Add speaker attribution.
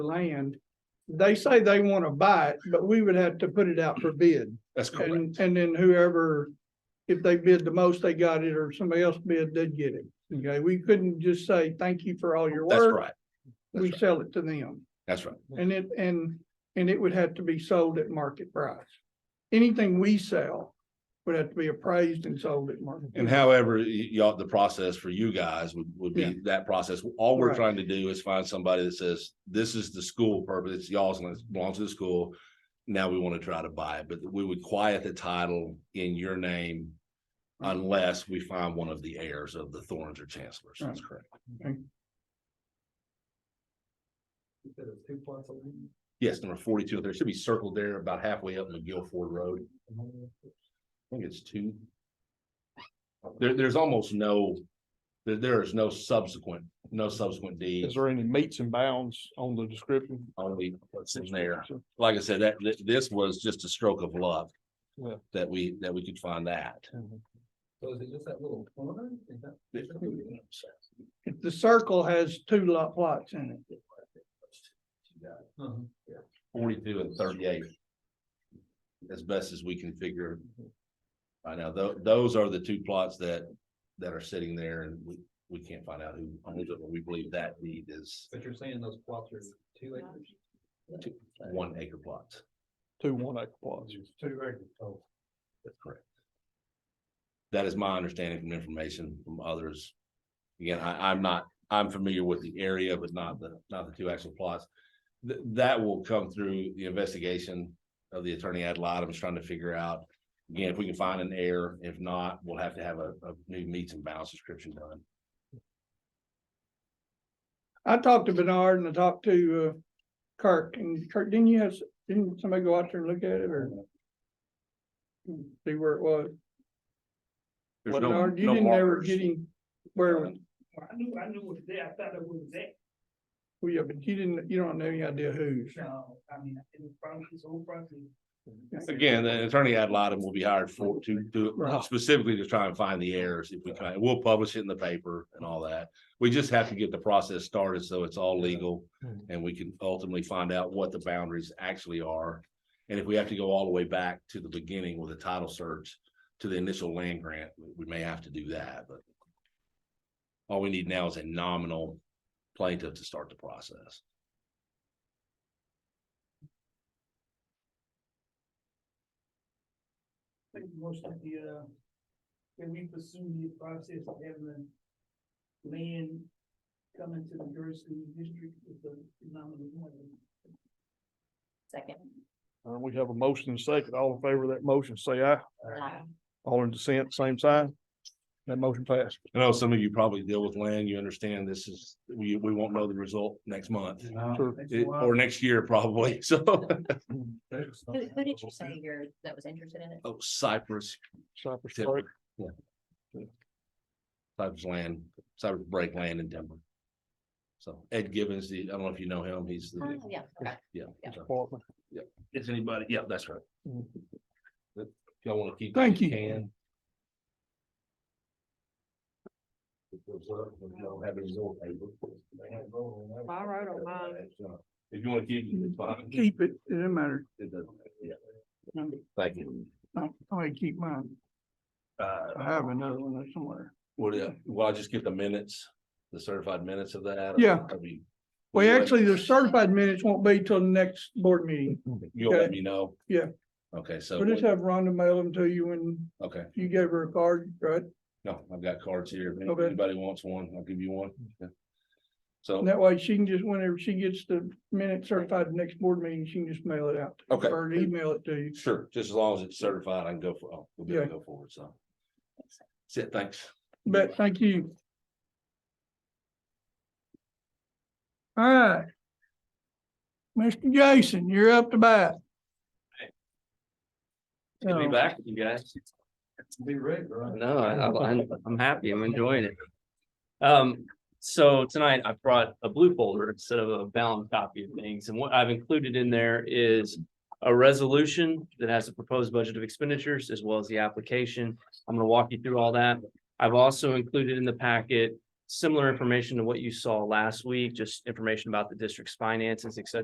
Speaker 1: land. They say they want to buy it, but we would have to put it out for bid.
Speaker 2: That's correct.
Speaker 1: And, and then whoever, if they bid the most, they got it, or somebody else bid, did get it. Okay, we couldn't just say, thank you for all your
Speaker 2: That's
Speaker 1: work.
Speaker 2: right. that's
Speaker 1: We
Speaker 2: right.
Speaker 1: sell it to them.
Speaker 2: That's right.
Speaker 1: And it, and, and it would have to be sold at market price. Anything we sell would have to be appraised and sold at market.
Speaker 2: And however, y- y'all, the process for you guys would, would
Speaker 1: Yeah.
Speaker 2: be that process. All we're
Speaker 1: Right.
Speaker 2: trying to do is find somebody that says, this is the school purpose, it's y'all's, and it belongs to the school. Now we want to try to buy it, but we would quiet the title in your name Mm-hmm. unless we find one of the heirs of the Thorns or Chancellors. That's correct. Yes, number forty-two, there should be circled there about halfway up McGill Ford Road. I think it's two. There, there's almost no, there, there is no subsequent, no subsequent
Speaker 3: Is
Speaker 2: deeds,
Speaker 3: there any meets and bounds on the description?
Speaker 2: only what's in there. Like I said, that, thi- this was just a stroke of luck.
Speaker 3: Yeah.
Speaker 2: That we, that we could find that.
Speaker 4: So is it just that little corner? Is that- is that-
Speaker 1: The circle has two lot plots in it.
Speaker 4: Uh-huh, yeah.
Speaker 2: Forty-two and thirty-eight. As best as we can figure. Right now, tho- those are the two plots that, that are sitting there and we, we can't find out who owns it, but we believe that deed is
Speaker 4: But you're saying those plots are two acres?
Speaker 2: one acre plots.
Speaker 3: Two one acre plots.
Speaker 4: Two acres oh. total.
Speaker 2: That's correct. That is my understanding from information from others. Again, I, I'm not, I'm familiar with the area, but not the, not the two actual plots. Th- that will come through the investigation of the attorney ad litem is trying to figure out. Again, if we can find an error, if not, we'll have to have a, a new meets and bounds description done.
Speaker 1: I talked to Bernard and I talked to uh, Kirk and Kirk, didn't you have, s- didn't somebody go out there and look at it or? See where it was?
Speaker 2: There's no-
Speaker 1: Bernard, you
Speaker 2: no
Speaker 1: didn't ever
Speaker 2: markers.
Speaker 1: get him where, it was-
Speaker 5: I knew, I knew it was there, I thought it was there,
Speaker 1: well, yeah, but you didn't, you don't have any idea whose.
Speaker 5: no, I mean, it was probably his own property.
Speaker 2: Again, the attorney ad litem will be hired for, to, to
Speaker 1: Right.
Speaker 2: specifically to try and find the errors if we can. We'll publish it in the paper and all that. We just have to get the process started so it's all legal
Speaker 3: Mhm.
Speaker 2: and we can ultimately find out what the boundaries actually are. And if we have to go all the way back to the beginning with a title search to the initial land grant, we- we may have to do that, but all we need now is a nominal plaintiff to start the process.
Speaker 5: I think most of the, uh, that we pursue the process of having land come into the Gerson district with the nominal one.
Speaker 6: Second.
Speaker 3: Uh, we have a motion and second. All in favor of that motion, say aye.
Speaker 6: Aye.
Speaker 3: All in dissent, same sign. That motion passed.
Speaker 2: I know some of you probably deal with land, you understand this is, we, we won't know the result next month.
Speaker 4: Uh,
Speaker 3: Sure.
Speaker 2: It- or next year probably, so.
Speaker 6: Who, who did you say you're, that was interested in it?
Speaker 2: Oh, Cypress,
Speaker 3: Cypress
Speaker 2: Tip.
Speaker 3: Creek.
Speaker 2: Cypress land, Cypress break land in Denver. So Ed Gibbons, the, I don't know if you know him, he's
Speaker 6: Oh,
Speaker 2: the,
Speaker 6: yeah, okay.
Speaker 2: yeah.
Speaker 6: yeah.
Speaker 2: so.
Speaker 3: Department.
Speaker 2: Is anybody, yeah, that's right.
Speaker 3: Mhm.
Speaker 2: If Y'all wanna keep.
Speaker 1: Thank you.
Speaker 2: can. If there's a- if y'all have any old papers, they have old ones.
Speaker 7: I wrote
Speaker 5: Uh,
Speaker 7: on mine.
Speaker 2: If you wanna keep it, it's fine.
Speaker 1: Keep it, it doesn't matter.
Speaker 2: It doesn't- yeah. Thank you.
Speaker 1: I, I keep mine.
Speaker 2: Uh,
Speaker 1: I have another one there somewhere.
Speaker 2: Would, uh, will I just get the minutes, the certified minutes of that?
Speaker 1: Yeah.
Speaker 2: I mean,
Speaker 1: Well, actually, the certified minutes won't be till the next board meeting.
Speaker 2: You'll let me know?
Speaker 1: Yeah.
Speaker 2: Okay, so,
Speaker 1: We'll just have Rhonda mail them to you when
Speaker 2: okay,
Speaker 1: you gave her a card, right?
Speaker 2: no, I've got cards here. If
Speaker 1: Okay. Mm-hmm.
Speaker 2: anybody wants one, I'll give you one. Yeah.
Speaker 1: And
Speaker 2: So,
Speaker 1: that way she can just, whenever she gets the minute certified next board meeting, she can just mail it out.
Speaker 2: Okay.
Speaker 1: Or email it to you.
Speaker 2: sure, just as long as it's certified, I can go for, oh, we'll be able to go forward, so. That's it, thanks.
Speaker 1: But thank you. All right. Mr. Jason, you're up to bat.
Speaker 8: Good to be
Speaker 1: So,
Speaker 8: back with you guys.
Speaker 4: Be right, right?
Speaker 8: No, I, I- I'm, I'm happy. I'm enjoying it. Um, so tonight I brought a blue folder instead of a bound copy of things. And what I've included in there is a resolution that has a proposed budget of expenditures as well as the application. I'm gonna walk you through all that. I've also included in the packet similar information to what you saw last week, just information about the district's finances, et cetera.